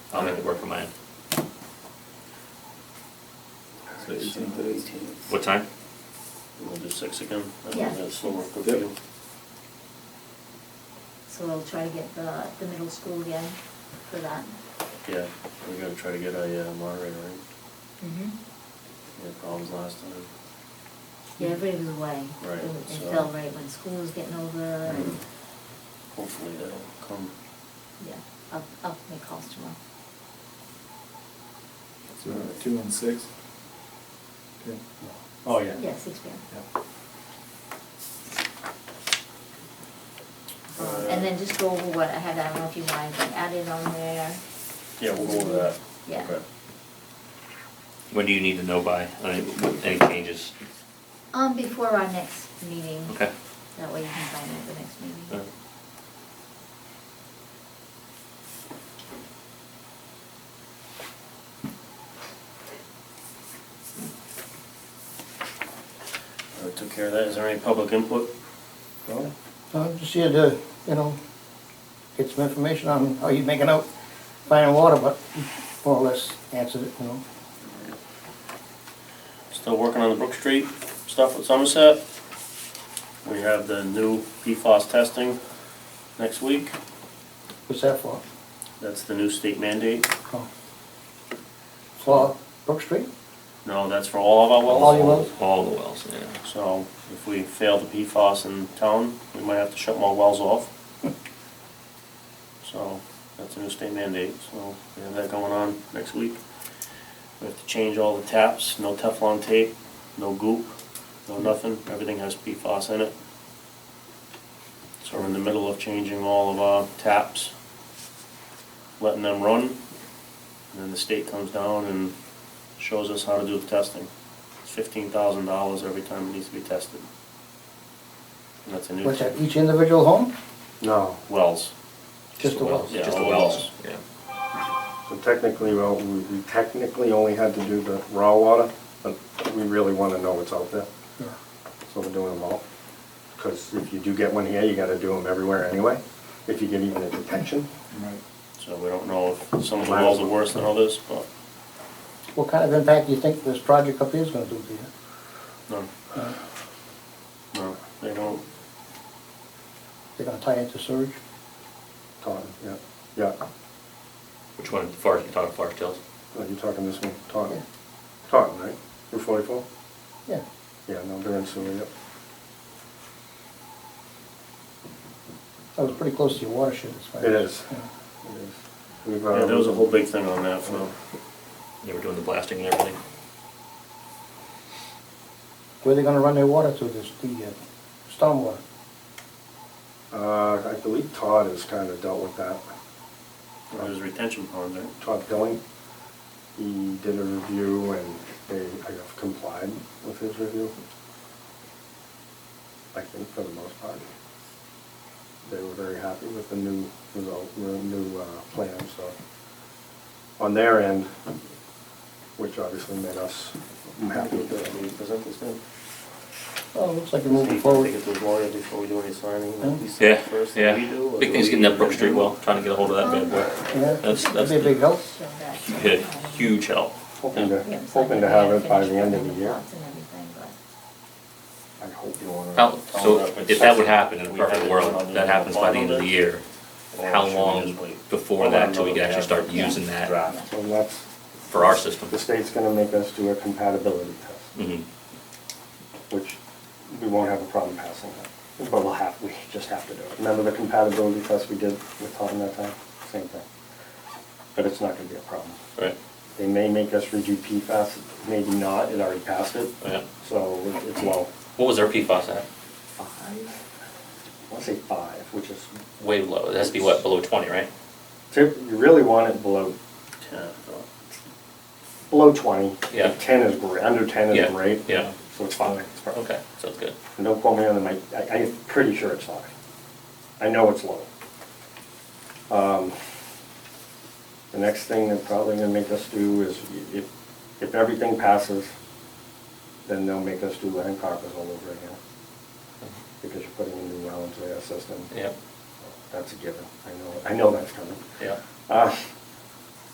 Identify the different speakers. Speaker 1: I'll make it work for mine.
Speaker 2: So it's on the 18th.
Speaker 1: What time?
Speaker 3: We'll do six again, and
Speaker 4: Yeah.
Speaker 3: then that's no work for
Speaker 2: Yep.
Speaker 3: you.
Speaker 4: So we'll try to get the, the middle school again for that.
Speaker 3: Yeah, we're gonna try to get a uh, moderator in,
Speaker 4: Mm-hmm.
Speaker 3: we had problems last time.
Speaker 4: Yeah, everybody was away.
Speaker 3: Right,
Speaker 4: It- It
Speaker 3: so-
Speaker 4: fell right when school was getting over and,
Speaker 3: Hopefully they'll come.
Speaker 4: yeah, I'll, I'll make calls tomorrow.
Speaker 2: So uh, two and six? Okay.
Speaker 3: Oh,
Speaker 4: Yeah, six P M.
Speaker 2: Yeah.
Speaker 4: Um, and then just go over what I had, I don't know if you wanted to add it on there.
Speaker 3: Yeah, we'll go over that.
Speaker 4: Yeah.
Speaker 3: Okay.
Speaker 1: When do you need to know by? Any, any changes?
Speaker 4: Um, before our next meeting.
Speaker 1: Okay.
Speaker 4: That way you can find it at the next
Speaker 1: Uh,
Speaker 4: meeting.
Speaker 3: Uh, Took care of that, is there any public input?
Speaker 2: Well,
Speaker 5: I'm just here to, you know, get some information on how you're making out fire and water, but more or less answered it, you know.
Speaker 3: Still working on the Brook Street stuff with Somerset. We have the new PFOS testing next week,
Speaker 5: What's that for?
Speaker 3: that's the new state mandate.
Speaker 5: Oh. For Brook Street?
Speaker 3: No, that's for all of our wells.
Speaker 5: All your wells?
Speaker 1: All the wells, yeah.
Speaker 3: So if we fail the PFOS in town, we might have to shut more wells off. So that's a new state mandate, so we have that going on next week. We have to change all the taps, no Teflon tape, no goop, no nothing, everything has PFOS in it. So we're in the middle of changing all of our taps, letting them run, and then the state comes down and shows us how to do the testing. It's fifteen thousand dollars every time it needs to be tested. And that's a new.
Speaker 5: What's that, each individual home?
Speaker 6: No,
Speaker 3: Wells.
Speaker 5: Just the wells?
Speaker 3: Yeah,
Speaker 1: Just the
Speaker 3: all the
Speaker 1: wells, yeah.
Speaker 6: so technically, well, we we technically only had to do the raw water, but we really want to know what's out there,
Speaker 5: Yeah.
Speaker 6: so we're doing them all. Because if you do get one here, you got to do them everywhere anyway, if you get even a detection.
Speaker 2: Right.
Speaker 3: So we don't know if some of the wells are worse than others, but
Speaker 5: What kind of impact do you think this project up here is gonna do to you?
Speaker 3: no,
Speaker 5: Uh,
Speaker 3: no, they don't.
Speaker 5: They're gonna tie into sewage?
Speaker 6: Taunton, yeah, yeah,
Speaker 1: Which one, Forest, you talking Forest Hills?
Speaker 6: Well, you're talking this one, Taunton.
Speaker 5: Yeah.
Speaker 6: Taunton, right? Route forty-four?
Speaker 5: Yeah.
Speaker 6: Yeah, no, they're in sewer, yep.
Speaker 5: That was pretty close to your watershed, as far as.
Speaker 6: It is.
Speaker 5: yeah.
Speaker 6: It is. We've,
Speaker 3: Yeah, there was a
Speaker 6: um,
Speaker 3: whole big thing on that for,
Speaker 1: They were doing the blasting and everything.
Speaker 5: Where they gonna run their water to, this, the uh, stormwater?
Speaker 6: Uh, I believe Todd has kind of dealt with that.
Speaker 3: it was retention ponds, right?
Speaker 6: Todd Pilling. He did a review and they, I have complied with his review. I think for the most part. They were very happy with the new result, the new, uh, plan, so. On their end, which obviously made us happy with it.
Speaker 3: Can you present this now?
Speaker 5: Oh, looks like you're
Speaker 3: See
Speaker 5: moving
Speaker 3: if I can
Speaker 5: forward.
Speaker 3: Get those lawyers before we do any signing,
Speaker 5: Hmm?
Speaker 3: at least
Speaker 1: Yeah,
Speaker 3: first
Speaker 1: yeah.
Speaker 3: that we do. or
Speaker 1: Big
Speaker 3: do
Speaker 1: thing's
Speaker 3: we-
Speaker 1: getting that Brook Street well, trying to get a hold of that bad boy.
Speaker 5: Yeah,
Speaker 1: That's- that's
Speaker 5: that'd be a
Speaker 1: the-
Speaker 5: big help.
Speaker 4: Show that.
Speaker 1: Huge, huge help.
Speaker 6: Hoping to,
Speaker 4: Yeah, so I
Speaker 6: hoping to
Speaker 4: think
Speaker 6: have
Speaker 4: we
Speaker 6: it by the
Speaker 4: finished
Speaker 6: end of
Speaker 4: building
Speaker 6: the year.
Speaker 4: plots and everything, but-
Speaker 6: I hope you
Speaker 1: How,
Speaker 6: wanna.
Speaker 1: so if that would happen in a perfect world, that happens by the end of the year,
Speaker 3: Oh,
Speaker 1: how long before that till we can actually start using that
Speaker 4: yeah.
Speaker 6: So that's,
Speaker 1: for our system?
Speaker 6: the state's gonna make us do a compatibility test.
Speaker 1: Mhm.
Speaker 6: which we won't have a problem passing that. But we'll have, we just have to do it. Remember the compatibility test we did with Taunton that time? Same thing. But it's not gonna be a problem.
Speaker 1: Right,
Speaker 6: They may make us redo PFAS, maybe not, it already passed it,
Speaker 1: yeah.
Speaker 6: so it's low.
Speaker 1: What was our PFAS at?
Speaker 6: Five? I wanna say five, which is,
Speaker 1: Way low, it has to be what, below twenty, right?
Speaker 6: tip- you really want it below,
Speaker 3: Yeah, so-
Speaker 6: below twenty.
Speaker 1: Yeah.
Speaker 6: Ten is great, under ten
Speaker 1: Yeah,
Speaker 6: is great.
Speaker 1: yeah.
Speaker 6: So it's fine, it's perfect.
Speaker 1: Okay, sounds good.
Speaker 6: And Don't quote me on the mic, I, I'm pretty sure it's five. I know it's low. Um, The next thing they're probably gonna make us do is, if, if everything passes, then they'll make us do land carpet all over again. Because you're putting a new well into their system.
Speaker 1: Yeah,
Speaker 6: That's a given, I know, I know that's coming.
Speaker 1: yeah.
Speaker 6: Uh,